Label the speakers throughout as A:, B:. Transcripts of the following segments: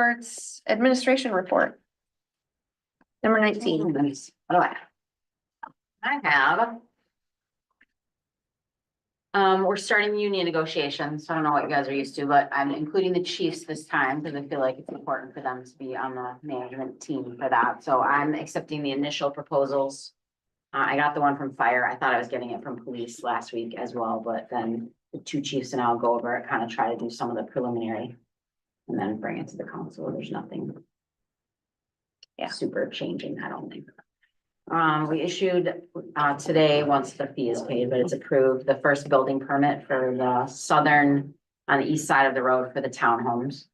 A: Reports, administration report. Number nineteen.
B: Nice. What do I have? I have. Um, we're starting union negotiations, so I don't know what you guys are used to, but I'm including the chiefs this time because I feel like it's important for them to be on the management team for that, so I'm accepting the initial proposals. Uh, I got the one from fire, I thought I was getting it from police last week as well, but then the two chiefs and I'll go over it, kind of try to do some of the preliminary. And then bring it to the council, there's nothing
A: Yeah.
B: super changing, I don't think. Um, we issued, uh, today, once the fee is paid, but it's approved, the first building permit for the southern, on the east side of the road for the townhomes.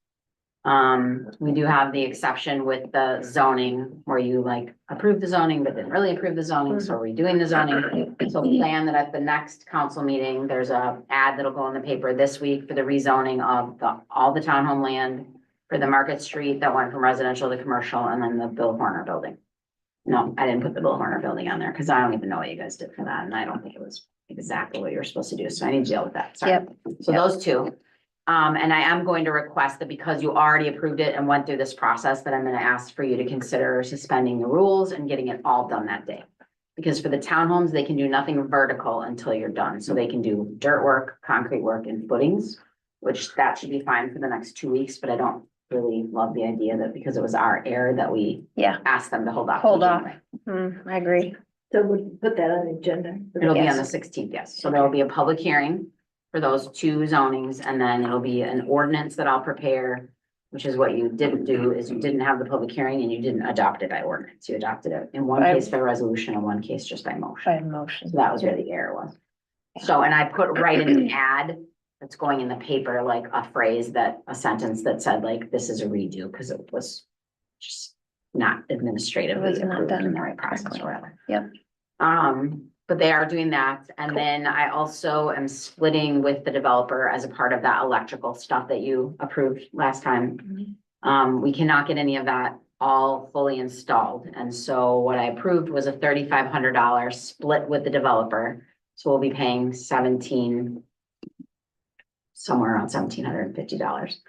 B: Um, we do have the exception with the zoning, where you like approve the zoning, but didn't really approve the zoning, so we're redoing the zoning. So plan that at the next council meeting, there's a ad that'll go in the paper this week for the rezoning of the, all the townhome land for the Market Street that went from residential to commercial, and then the Bill Horner building. No, I didn't put the Bill Horner building on there, because I don't even know what you guys did for that, and I don't think it was exactly what you were supposed to do, so I need to deal with that, sorry.
A: Yep.
B: So those two, um, and I am going to request that because you already approved it and went through this process, that I'm gonna ask for you to consider suspending the rules and getting it all done that day. Because for the townhomes, they can do nothing vertical until you're done, so they can do dirt work, concrete work, and footings, which that should be fine for the next two weeks, but I don't really love the idea that because it was our error that we
A: Yeah.
B: asked them to hold off. till
A: Hold off.
B: January.
A: Hmm, I agree.
C: So we put that on the agenda.
B: It'll be on the
A: Yes.
B: sixteenth, yes. So there'll be a public hearing for those two zonings and then it'll be an ordinance that I'll prepare. Which is what you didn't do, is you didn't have the public hearing and you didn't adopt it by ordinance. You adopted it in one
A: By-
B: case by resolution and one case just by motion.
A: By motion.
B: So that was where the error was. So, and I put right in the ad that's going in the paper, like a phrase that, a sentence that said like, this is a redo, because it was just not
A: It
B: administratively
A: was not
B: approved
A: done
B: in the right process
A: correctly.
B: or whatever.
A: Yep.
B: Um, but they are doing that. And then I also am splitting with the developer as a part of that electrical stuff that you approved last time.
A: Mm-hmm.
B: Um, we cannot get any of that all fully installed. And so what I approved was a thirty-five hundred dollar split with the developer. So we'll be paying seventeen, somewhere around seventeen hundred and fifty dollars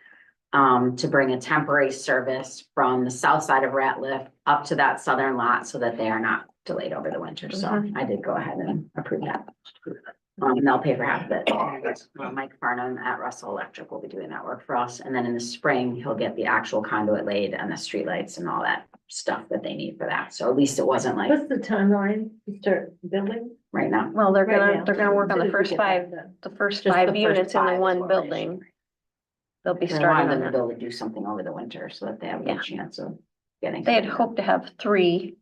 B: um, to bring a temporary service from the south side of Ratliff up to that southern lot so that they are not delayed over the winter. So
A: Mhm.
B: I did go ahead and approve that. Um, and they'll pay for half of it. Uh, Mike Farnham at Russell Electric will be doing that work for us. And then in the spring, he'll get the actual conduit laid and the streetlights and all that stuff that they need for that. So at least it wasn't like
C: What's the timeline to start building?
B: right now.
A: Well, they're
C: Right
A: gonna,
C: now?
A: they're gonna work on
C: Soon
A: the
C: as we
A: first
C: get
A: five,
C: that done.
A: the first
B: Just the
A: five
B: first
A: units in the
B: five is
A: one
B: what we're issuing.
A: building. They'll be
B: They wanted
A: starting on
B: them to be
A: that.
B: able to do something over the winter so that they have a
A: Yeah.
B: good chance of getting.
A: They had hoped to have three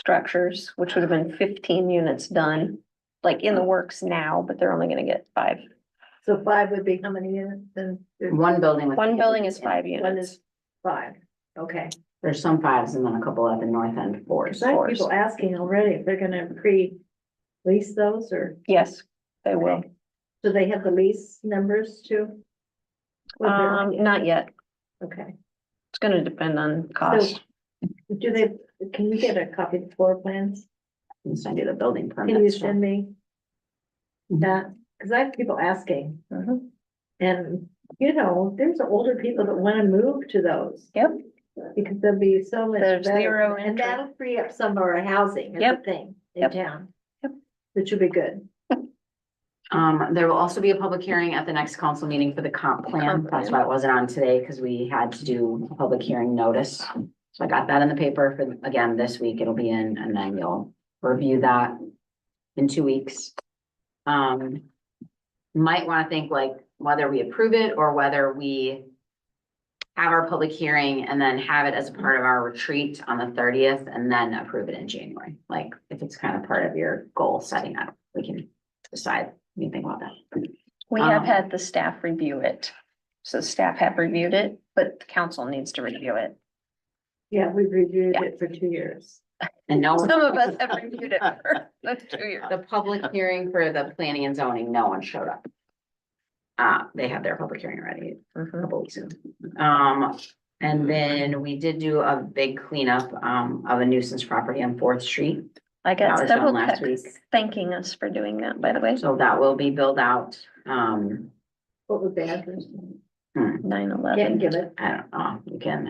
A: structures, which would have been fifteen units done, like in the works now, but they're only gonna get five.
C: So five would be how many units then?
B: One building. with-
A: One building is five
C: One
A: units.
C: is five, okay.
B: There's some fives and then a couple at the north end fours.
C: Cause I have people asking already if they're gonna pre-lease those or,
A: Yes, they will.
C: do they have the lease numbers too? Well, they're-
A: Um, not yet.
C: Okay,
A: It's gonna depend on cost.
C: do they, can you get a copy of the floor plans?
B: And send you the building permit.
C: Can you send me?
A: Mm-hmm.
B: Mhm.
C: That, cause I have people asking.
A: Mhm.
C: And, you know, there's older people that wanna move to those.
A: Yep.
C: Because there'll be so much
A: There's zero
C: better, and
A: entry.
C: that'll free up some of our housing is the
A: Yep.
C: thing in
A: Yep.
C: town.
A: Yep.
C: Which would be good.
B: Um, there will also be a public hearing at the next council meeting for the comp plan.
A: Comp
B: That's
A: plan.
B: why it wasn't on today, because we had to do a public hearing notice. So I got that in the paper for, again, this week. It'll be in, and then you'll review that in two weeks. Um, might want to think like whether we approve it or whether we have our public hearing and then have it as a part of our retreat on the thirtieth and then approve it in January. Like, if it's kind of part of your goal setting up, we can decide anything about that.
A: We have
B: Um,
A: had the staff review it. So staff have reviewed it, but the council needs to review it.
C: Yeah, we've reviewed
A: Yeah.
C: it for two years.
B: And no,
A: Some of us have reviewed it for the two years.
B: the public hearing for the planning and zoning, no one showed up. Uh, they had their public hearing ready a
A: Mhm.
B: couple weeks ago. Um, and then we did do a big cleanup, um, of a nuisance property on Fourth Street.
A: I
B: That
A: got
B: was done
A: several
B: last
A: texts
B: week.
A: thanking us for doing that, by the way.
B: So that will be billed out, um,
C: What was the address?
B: Hmm,
A: nine eleven.
C: Can't give it.
B: I don't know, you can,